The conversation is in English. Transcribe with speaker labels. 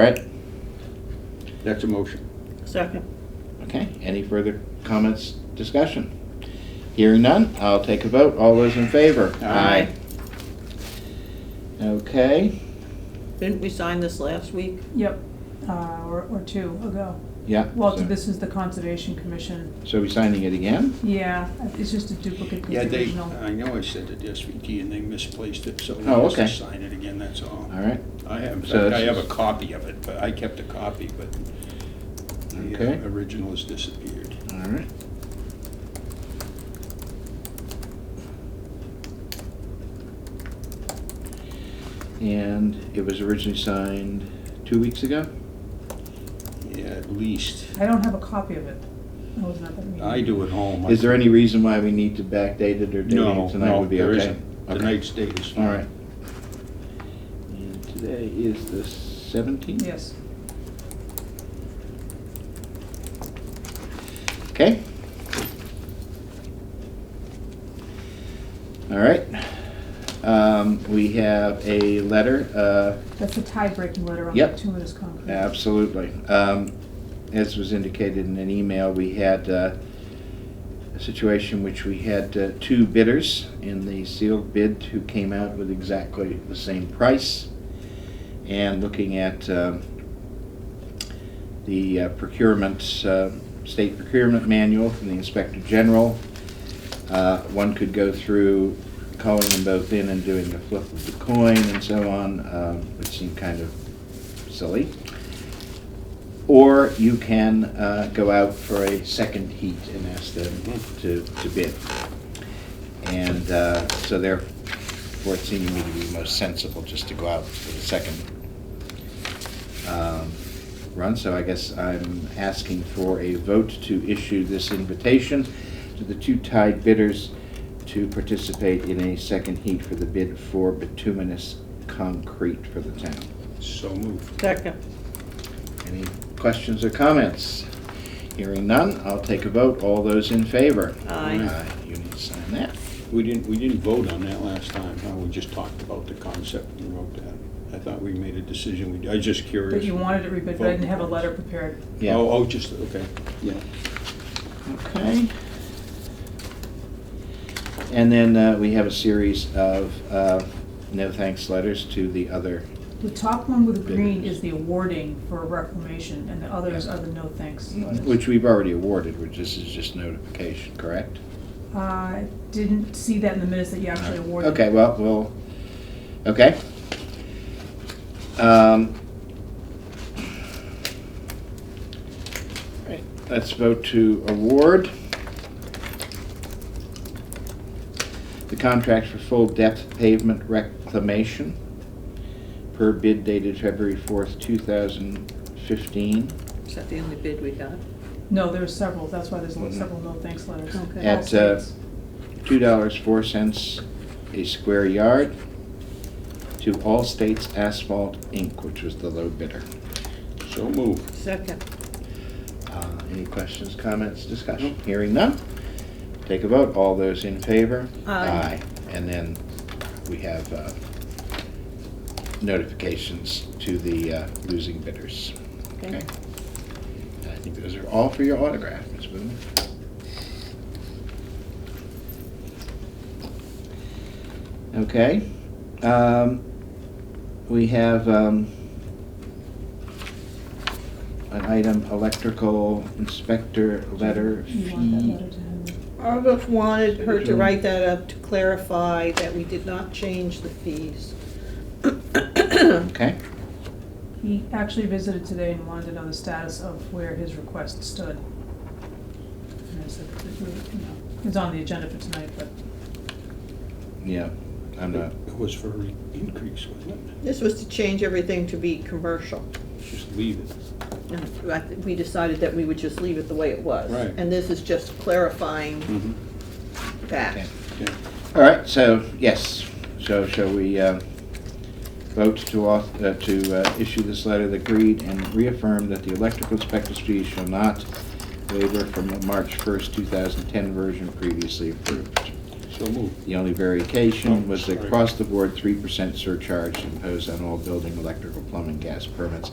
Speaker 1: All right,
Speaker 2: That's a motion.
Speaker 3: Second.
Speaker 1: okay, any further comments, discussion? Hearing none, I'll take a vote, all those in favor?
Speaker 2: Aye.
Speaker 1: Okay,
Speaker 3: Didn't we sign this last week?
Speaker 4: Yep, uh, or, or two ago.
Speaker 1: yeah.
Speaker 4: Well,
Speaker 1: so-
Speaker 4: this is the Conservation Commission.
Speaker 1: So we signing it again?
Speaker 4: Yeah, it's just a duplicate of
Speaker 2: Yeah,
Speaker 4: the
Speaker 2: they,
Speaker 4: original.
Speaker 1: uh,
Speaker 2: I know I sent it to SVT and they misplaced it, so they
Speaker 1: Oh,
Speaker 2: must
Speaker 1: okay.
Speaker 2: sign it again, that's all.
Speaker 1: All right,
Speaker 2: I have, in
Speaker 1: So
Speaker 2: fact, I
Speaker 1: this
Speaker 2: have
Speaker 1: is-
Speaker 2: a copy of it, but I kept a copy, but the
Speaker 1: Okay.
Speaker 2: uh, original has disappeared.
Speaker 1: all right. And it was originally signed two weeks ago?
Speaker 2: Yeah, at least.
Speaker 4: I don't have a copy of it. I wasn't at that meeting.
Speaker 2: I do at home.
Speaker 1: Is there any reason why we need to backdate it or date
Speaker 2: No,
Speaker 1: it tonight
Speaker 2: no,
Speaker 1: would be okay?
Speaker 2: there isn't.
Speaker 1: Okay.
Speaker 2: Tonight's date is
Speaker 1: All
Speaker 2: fine.
Speaker 1: right. And today is the seventeenth?
Speaker 4: Yes.
Speaker 1: Okay. All right. Um, we have a letter, uh,
Speaker 4: That's the tie-breaking letter on
Speaker 1: Yep.
Speaker 4: the two-minute concrete.
Speaker 1: Absolutely. Um, As was indicated in an email, we had uh, a situation which we had uh, two bidders in the sealed bid who came out with exactly the same price. And looking at um, the uh, procurement, uh, state procurement manual from the Inspector General, uh, one could go through calling them both in and doing the flip of the coin and so on, um, which seemed kind of silly. Or you can uh, go out for a second heat and ask them to, to bid. And uh, so therefore, it seemed to me to be most sensible just to go out for the second um, run. So I guess I'm asking for a vote to issue this invitation to the two tied bidders to participate in a second heat for the bid for bituminous concrete for the town.
Speaker 2: So moved.
Speaker 3: Second.
Speaker 1: Any questions or comments? Hearing none, I'll take a vote. All those in favor?
Speaker 3: Aye.
Speaker 1: You need to sign that.
Speaker 2: We didn't, we didn't vote on that last time, huh? We just talked about the concept and wrote that. I thought we made a decision, we, I was just curious.
Speaker 4: But you wanted it rebid, but I didn't have a letter prepared.
Speaker 1: Yeah,
Speaker 2: Oh, oh, just, okay, yeah.
Speaker 1: okay. And then uh, we have a series of uh, no thanks letters to the other.
Speaker 4: The top one with the green
Speaker 1: Bidders.
Speaker 4: is the awarding for reclamation, and the others
Speaker 1: Yes.
Speaker 4: are the no thanks letters.
Speaker 1: Which we've already awarded, which this is just notification, correct?
Speaker 4: I didn't see that in the minutes that you actually awarded.
Speaker 1: Okay, well, we'll, okay. Um, right, Let's vote to award the contract for full depth pavement reclamation per bid dated February fourth, two thousand fifteen.
Speaker 3: Is that the only bid we got?
Speaker 4: No, there are several, that's why there's
Speaker 1: Mhm.
Speaker 4: several no thanks letters.
Speaker 3: Okay.
Speaker 1: At, uh,
Speaker 4: All states.
Speaker 1: two dollars four cents a square yard to All States Asphalt Inc., which was the low bidder.
Speaker 2: So moved.
Speaker 3: Second.
Speaker 1: Uh, Any questions, comments, discussion? Hearing none, take a vote. All those in favor?
Speaker 3: Aye.
Speaker 1: And then we have uh, notifications to the uh, losing bidders.
Speaker 3: Okay.
Speaker 1: And I think those are all for your autograph, Ms. Boone. Okay. um, We have um, an item, electrical inspector letter
Speaker 4: You want that
Speaker 1: fee.
Speaker 4: letter to him?
Speaker 3: Argos wanted her to write that up to clarify that we did not change the fees.
Speaker 1: Okay,
Speaker 4: He actually visited today and wanted to know the status of where his request stood. And I said, that we- you know, it's on the agenda for tonight, but
Speaker 1: yeah, I'm not,
Speaker 2: It was for an increase, wasn't it?
Speaker 3: This was to change everything to be commercial.
Speaker 2: Just leave it.
Speaker 3: And I think We decided that we would just leave it the way it was.
Speaker 2: Right. Hmm.
Speaker 3: And this is just clarifying
Speaker 2: Mm-hmm.
Speaker 1: okay.
Speaker 3: that.
Speaker 2: Okay.
Speaker 1: All right, so, yes, so shall we uh, vote to, auth- uh, to uh, issue this letter of agreed and reaffirm that the electrical inspector's fee shall not waiver from the March 1st, 2010 version previously approved.
Speaker 2: So moved.
Speaker 1: The only
Speaker 2: Oh,
Speaker 1: variation was the
Speaker 2: sorry.
Speaker 1: across-the-board 3% surcharge imposed on all building, electrical, plumbing, gas permits